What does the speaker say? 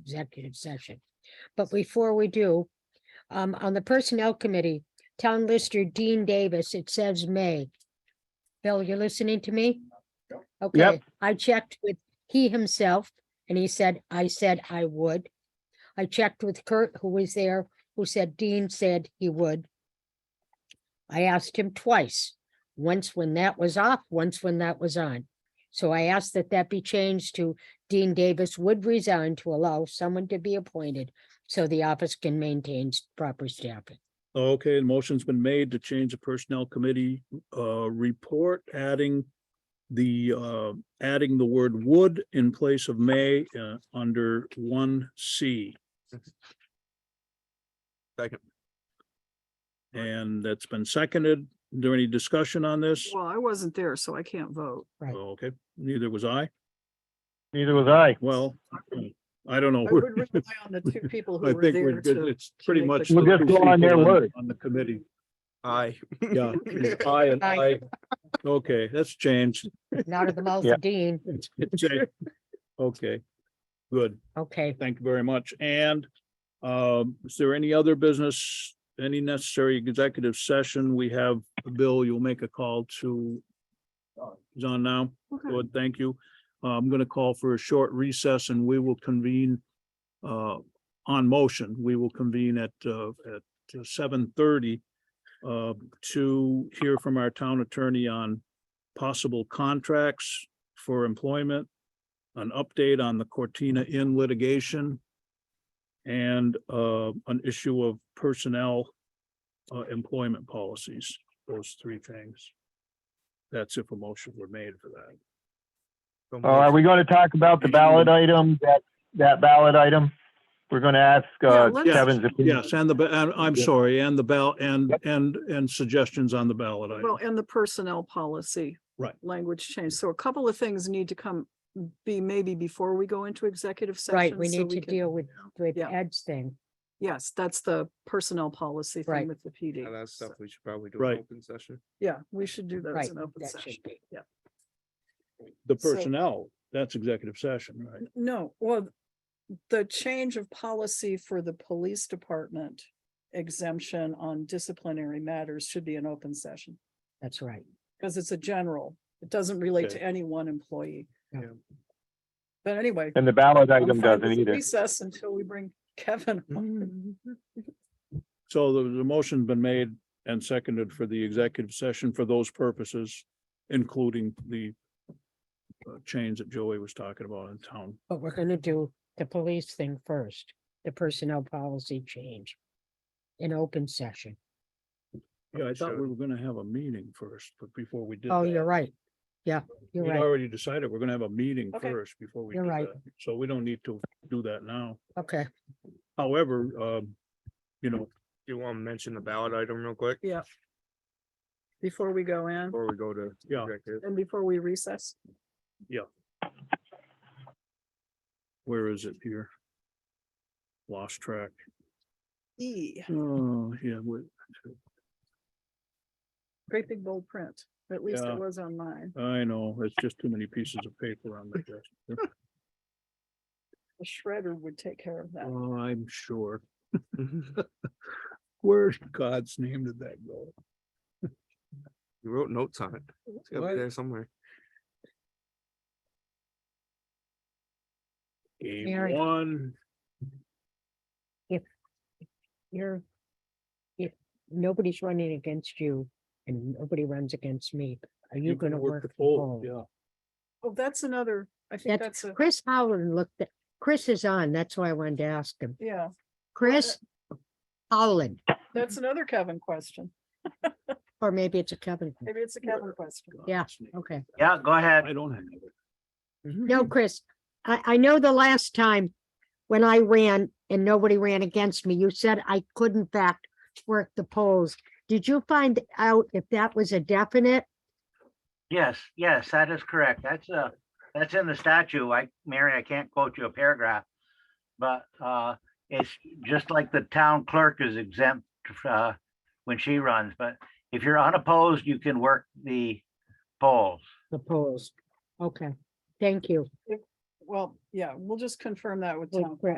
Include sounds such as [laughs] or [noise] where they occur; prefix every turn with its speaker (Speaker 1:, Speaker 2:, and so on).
Speaker 1: executive session. But before we do, um, on the Personnel Committee, Town Lister Dean Davis, it says May. Bill, you're listening to me? Okay, I checked with he himself and he said, I said I would. I checked with Kurt, who was there, who said Dean said he would. I asked him twice, once when that was off, once when that was on. So I asked that that be changed to Dean Davis would resign to allow someone to be appointed so the office can maintain s- proper staffing.
Speaker 2: Okay, the motion's been made to change the personnel committee uh report, adding the uh adding the word would in place of may uh under one C.
Speaker 3: Second.
Speaker 2: And that's been seconded. Is there any discussion on this?
Speaker 4: Well, I wasn't there, so I can't
Speaker 2: [laughs]
Speaker 4: vote.
Speaker 1: Right.
Speaker 2: Okay, neither was I.
Speaker 5: Neither was I.
Speaker 2: Well, I don't know.
Speaker 4: I would rely on the two people
Speaker 2: I
Speaker 4: who were
Speaker 2: think we're
Speaker 4: there
Speaker 2: good.
Speaker 4: to.
Speaker 2: It's pretty
Speaker 4: make
Speaker 2: much.
Speaker 4: the-
Speaker 2: the
Speaker 5: We'll just
Speaker 2: two
Speaker 5: go on their
Speaker 2: people
Speaker 5: word.
Speaker 2: On the committee,
Speaker 3: Aye.
Speaker 2: yeah. I and
Speaker 1: Aye.
Speaker 2: I. Okay, that's changed.
Speaker 1: Not of
Speaker 2: [laughs]
Speaker 1: the mouth
Speaker 5: Yeah.
Speaker 1: of Dean.
Speaker 2: It's
Speaker 4: [laughs]
Speaker 2: it's changed. Okay, good.
Speaker 1: Okay,
Speaker 2: Thank you very much. And um, is there any other business, any necessary executive session? We have, uh, Bill, you'll make a call to uh, he's on now.
Speaker 4: Okay.
Speaker 2: Good, thank you. Uh, I'm going to call for a short recess and we will convene uh, on motion. We will convene at uh, at seven thirty uh, to hear from our town attorney on possible contracts for employment, an update on the Cortina Inn litigation, and uh, an issue of personnel uh, employment policies, those three things. That's if a motion were made for that.
Speaker 3: So
Speaker 5: Uh, are
Speaker 3: moved.
Speaker 5: we gonna talk about the [clears throat] ballot item, that, that ballot item? We're gonna ask, uh,
Speaker 4: Yeah, let's-
Speaker 5: Kevin's opinion.
Speaker 2: Yes, and the, ba- and I'm
Speaker 5: Yeah.
Speaker 2: sorry, and the ballot, and,
Speaker 5: Yep.
Speaker 2: and, and suggestions on the ballot item.
Speaker 4: Well, and the personnel policy.
Speaker 2: Right.
Speaker 4: Language change. So a couple of things need to come, be maybe before we go into executive session.
Speaker 1: right, we
Speaker 4: so
Speaker 1: need to
Speaker 4: can-
Speaker 1: deal with, with
Speaker 4: Yeah.
Speaker 1: Ed's thing.
Speaker 4: Yes, that's the personnel policy
Speaker 1: Right.
Speaker 4: thing with the PD.
Speaker 3: Yeah, That's stuff
Speaker 4: So,
Speaker 3: we should probably do
Speaker 2: Right.
Speaker 3: in open session.
Speaker 4: Yeah, we should do that
Speaker 1: Right,
Speaker 4: as an open
Speaker 1: that should
Speaker 4: session.
Speaker 1: be.
Speaker 2: The
Speaker 4: so-
Speaker 2: personnel, that's executive session, right?
Speaker 4: No, well, the change of policy for the police department exemption on disciplinary matters should be an open session.
Speaker 1: That's right.
Speaker 4: Because it's a general, it doesn't relate to
Speaker 2: Okay.
Speaker 4: any one employee.
Speaker 1: Yeah.
Speaker 4: But anyway.
Speaker 5: And the ballot
Speaker 4: I'm
Speaker 5: item
Speaker 4: fine
Speaker 5: doesn't
Speaker 4: with
Speaker 5: either.
Speaker 4: Recess until we bring Kevin. on.
Speaker 2: So the, the motion's been made and seconded for the executive session for those purposes, including the uh, change that Joey was talking about in town.
Speaker 1: But we're gonna do the police thing first, the personnel policy change. In open session.
Speaker 2: Yeah, I thought we were gonna have a meeting first, but before we did.
Speaker 1: Oh,
Speaker 2: that,
Speaker 1: you're right. Yeah, you're
Speaker 2: We'd
Speaker 1: right.
Speaker 2: already decided we're gonna have a meeting
Speaker 4: Okay.
Speaker 2: first before we.
Speaker 1: You're
Speaker 2: did
Speaker 1: right.
Speaker 2: that. So we don't need to do that now.
Speaker 1: Okay,
Speaker 2: However, um, you know,
Speaker 3: Do you want to mention the ballot item real quick
Speaker 4: Before we go in
Speaker 3: before we go to?
Speaker 2: Yeah.
Speaker 3: executive?
Speaker 4: and before we recess,
Speaker 2: where is it here? Lost track.
Speaker 4: E,
Speaker 2: Oh, yeah, we,
Speaker 4: great big bold print, at least
Speaker 2: Yeah.
Speaker 4: it was on mine,
Speaker 2: I know, it's just too many pieces of paper on the desk.
Speaker 4: the shredder would take care of that.
Speaker 2: Oh, I'm sure. [laughs] Where in God's name did that go?
Speaker 3: You wrote notes on it. It's gotta
Speaker 2: What?
Speaker 3: be there somewhere.
Speaker 2: Game
Speaker 1: Mary.
Speaker 2: one,
Speaker 1: you're. If nobody's running against you and nobody runs against me, are you
Speaker 2: you can
Speaker 1: gonna
Speaker 2: work the
Speaker 1: work? full?
Speaker 2: poll, yeah.
Speaker 4: Oh, that's another, I think
Speaker 1: That's,
Speaker 4: that's a,
Speaker 1: Chris Howland looked at, Chris is on, that's why I wanted to ask him.
Speaker 4: yeah,
Speaker 1: Chris Howland,
Speaker 4: that's another Kevin question.
Speaker 1: or maybe it's a Kevin. thing.
Speaker 4: Maybe it's a Kevin question.
Speaker 1: Yeah.
Speaker 2: God's name.
Speaker 1: Okay.
Speaker 5: Yeah, go ahead.
Speaker 2: I don't have it.
Speaker 1: No, Chris, I, I know the last time when I ran and nobody ran against me, you said I could in fact work the polls. Did you find out if that was a definite?
Speaker 6: Yes, yes, that is correct. That's uh that's in the statute. I, Mary, I can't quote you a paragraph. But uh, it's just like the town clerk is exempt uh, when she runs, but if you're unopposed, you can work the polls.
Speaker 1: The polls. Okay, thank you.
Speaker 4: well, yeah, we'll just confirm that with
Speaker 1: With
Speaker 4: town.
Speaker 1: Brett.